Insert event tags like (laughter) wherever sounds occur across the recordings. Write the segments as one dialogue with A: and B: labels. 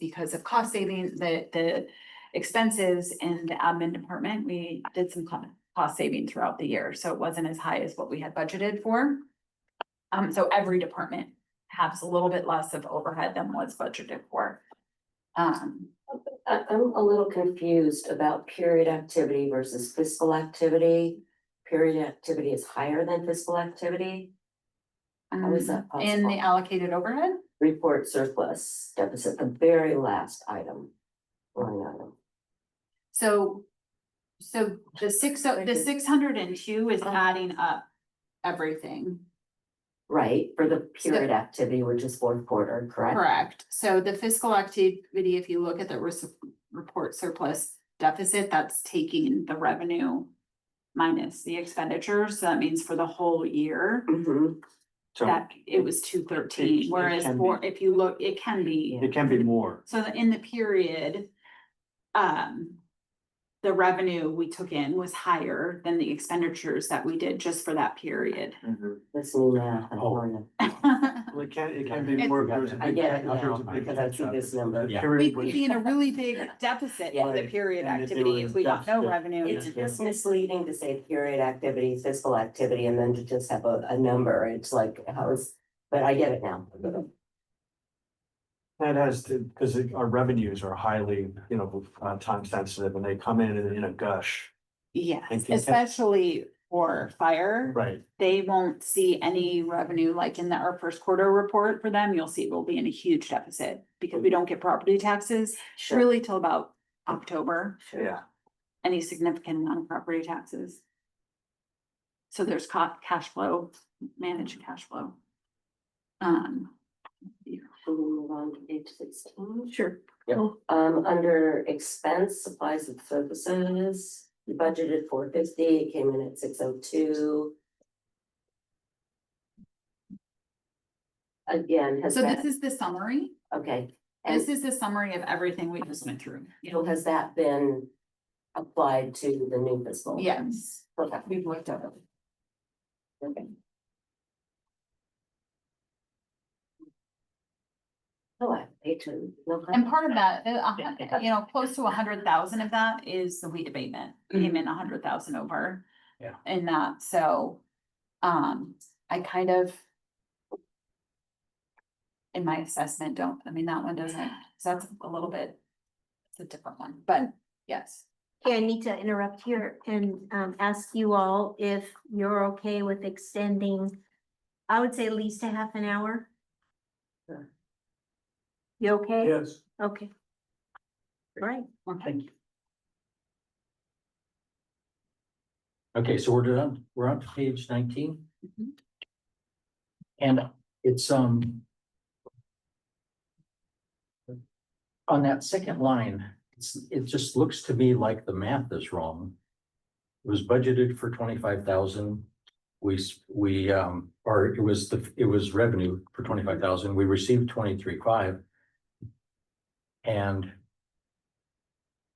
A: because of cost saving, the, the expenses in the admin department, we did some co- cost saving throughout the year, so it wasn't as high as what we had budgeted for. Um, so every department has a little bit less of overhead than was budgeted for. Um,
B: I, I'm a little confused about period activity versus fiscal activity. Period activity is higher than fiscal activity, How is that
A: um, in the
B: possible?
A: allocated overhead,
B: report surplus deficit, the very last item. Line item.
A: so. So the six, o- the six hundred and two is adding up everything.
B: right, for the
A: So-
B: period activity, which is fourth quarter, correct?
A: Correct. So the fiscal activity, if you look at the res- report surplus deficit, that's taking the revenue minus the expenditure. So that means for the whole year
B: Mhm.
C: So
A: that it was two
C: It-
A: thirteen,
C: it
A: whereas
C: can
A: for, if you look, it can be.
C: it can be more.
A: So the- in the period, um, the revenue we took in was higher than the expenditures that we did just for that period. (laughs)
C: Mm-hmm.
B: This new math. I
C: Oh.
B: don't know.
C: Well, It can, it can be more. if there's a
B: I
C: big-
B: get it
C: if there's
B: now,
C: a big
B: because I see this number.
C: The
A: We
C: period
A: could
C: was-
A: be in a really big deficit for the
C: Right.
A: period
C: And if they
A: activity
C: were
A: if we got no
C: deficit-
A: revenue.
B: It's just misleading to say period activity, fiscal activity, and then to just have a, a number, it's like, how is, but I get it now.
C: That has to, because our revenues are highly, you know, uh, time sensitive and they come in in a gush.
A: Yes,
C: Thank you.
A: especially for fire,
C: Right.
A: they won't see any revenue like in the, our first quarter report for them, you'll see we'll be in a huge deficit. Because we don't get property taxes
B: Sure,
A: really till about October,
B: sure.
C: Yeah.
A: any significant amount of property taxes. So there's ca- cash flow, managed cash flow. Um,
B: Can we move on to page sixteen?
A: sure.
B: Um, under expense, supplies and services, you budgeted four fifty, it came in at six oh two. Again, has
A: So this
B: that,
A: is the summary.
B: okay,
A: This is the summary of everything we just went through.
B: so has that been applied to the new fiscal?
A: Yes,
B: Okay.
A: we've looked at it.
B: Okay. Oh, I hate to. no
A: And
B: comment.
A: part of that, the- a hun- you know, close to a hundred thousand of that is the weed abatement, came in a hundred thousand over.
C: Yeah.
A: In that, so, um, I kind of. In my assessment, don't, I mean, that one doesn't, 'cause that's a little bit, it's a different one, but yes.
D: Okay, I need to interrupt here and um ask you all if you're okay with extending. I would say at least a half an hour.
B: Sure.
D: You okay?
C: Yes.
D: Okay. All Right,
A: Thank you.
E: Okay, so we're done, we're on to page nineteen.
A: Mhm.
E: And it's, um. On that second line, it's, it just looks to me like the math is wrong. It was budgeted for twenty-five thousand. We, s- we, um, or it was the, it was revenue for twenty-five thousand. We received twenty-three five. And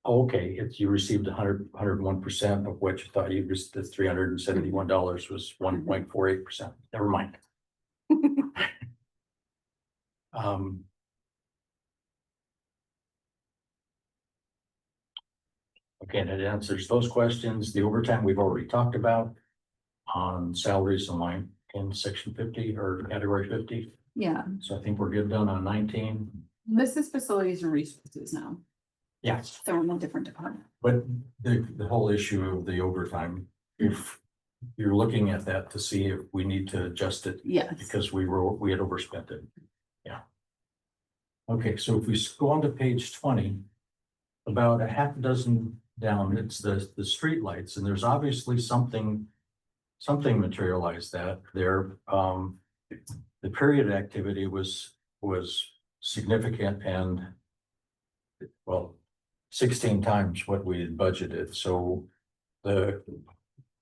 E: Okay, if you received a hundred, hundred and one percent of what you thought you was, the three hundred and seventy-one dollars was one point four eight percent, never mind. Um. Okay, that answers those questions. The overtime we've already talked about. On salaries in line in section fifty or category fifty,
A: Yeah,
E: so I think we're good done on nineteen.
A: this is facilities and resources now,
E: Yes.
A: so we're in a different department.
E: But the, the whole issue of the overtime, if you're looking at that to see if we need to adjust it
A: Yes.
E: because we were, we had overspent it. Yeah. Okay, so if we s- go on to page twenty, about a half dozen down, it's the, the streetlights, and there's obviously something, something materialized that there, um, the period activity was, was significant and well, sixteen times what we had budgeted, so the,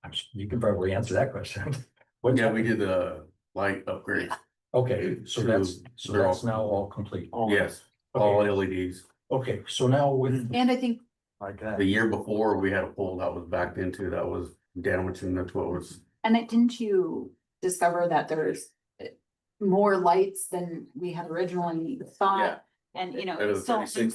E: I'm s- you can probably answer that question. (laughs) What's
F: Yeah,
E: up
F: we
E: with-
F: did a light upgrade.
E: Okay, so
F: So
E: that's, so
F: they're all-
E: that's now all complete.
F: Yes, all E
E: Okay,
F: LEDs.
E: okay, so now with,
A: And I think
C: Like that.
F: The year before, we had a pole that was backed into, that was damaged and that's what was,
A: And it, didn't you discover that there's eh, more lights than we had originally
F: Yeah.
A: thought? And, you know,
F: Out of
A: it
F: the
A: still
F: 36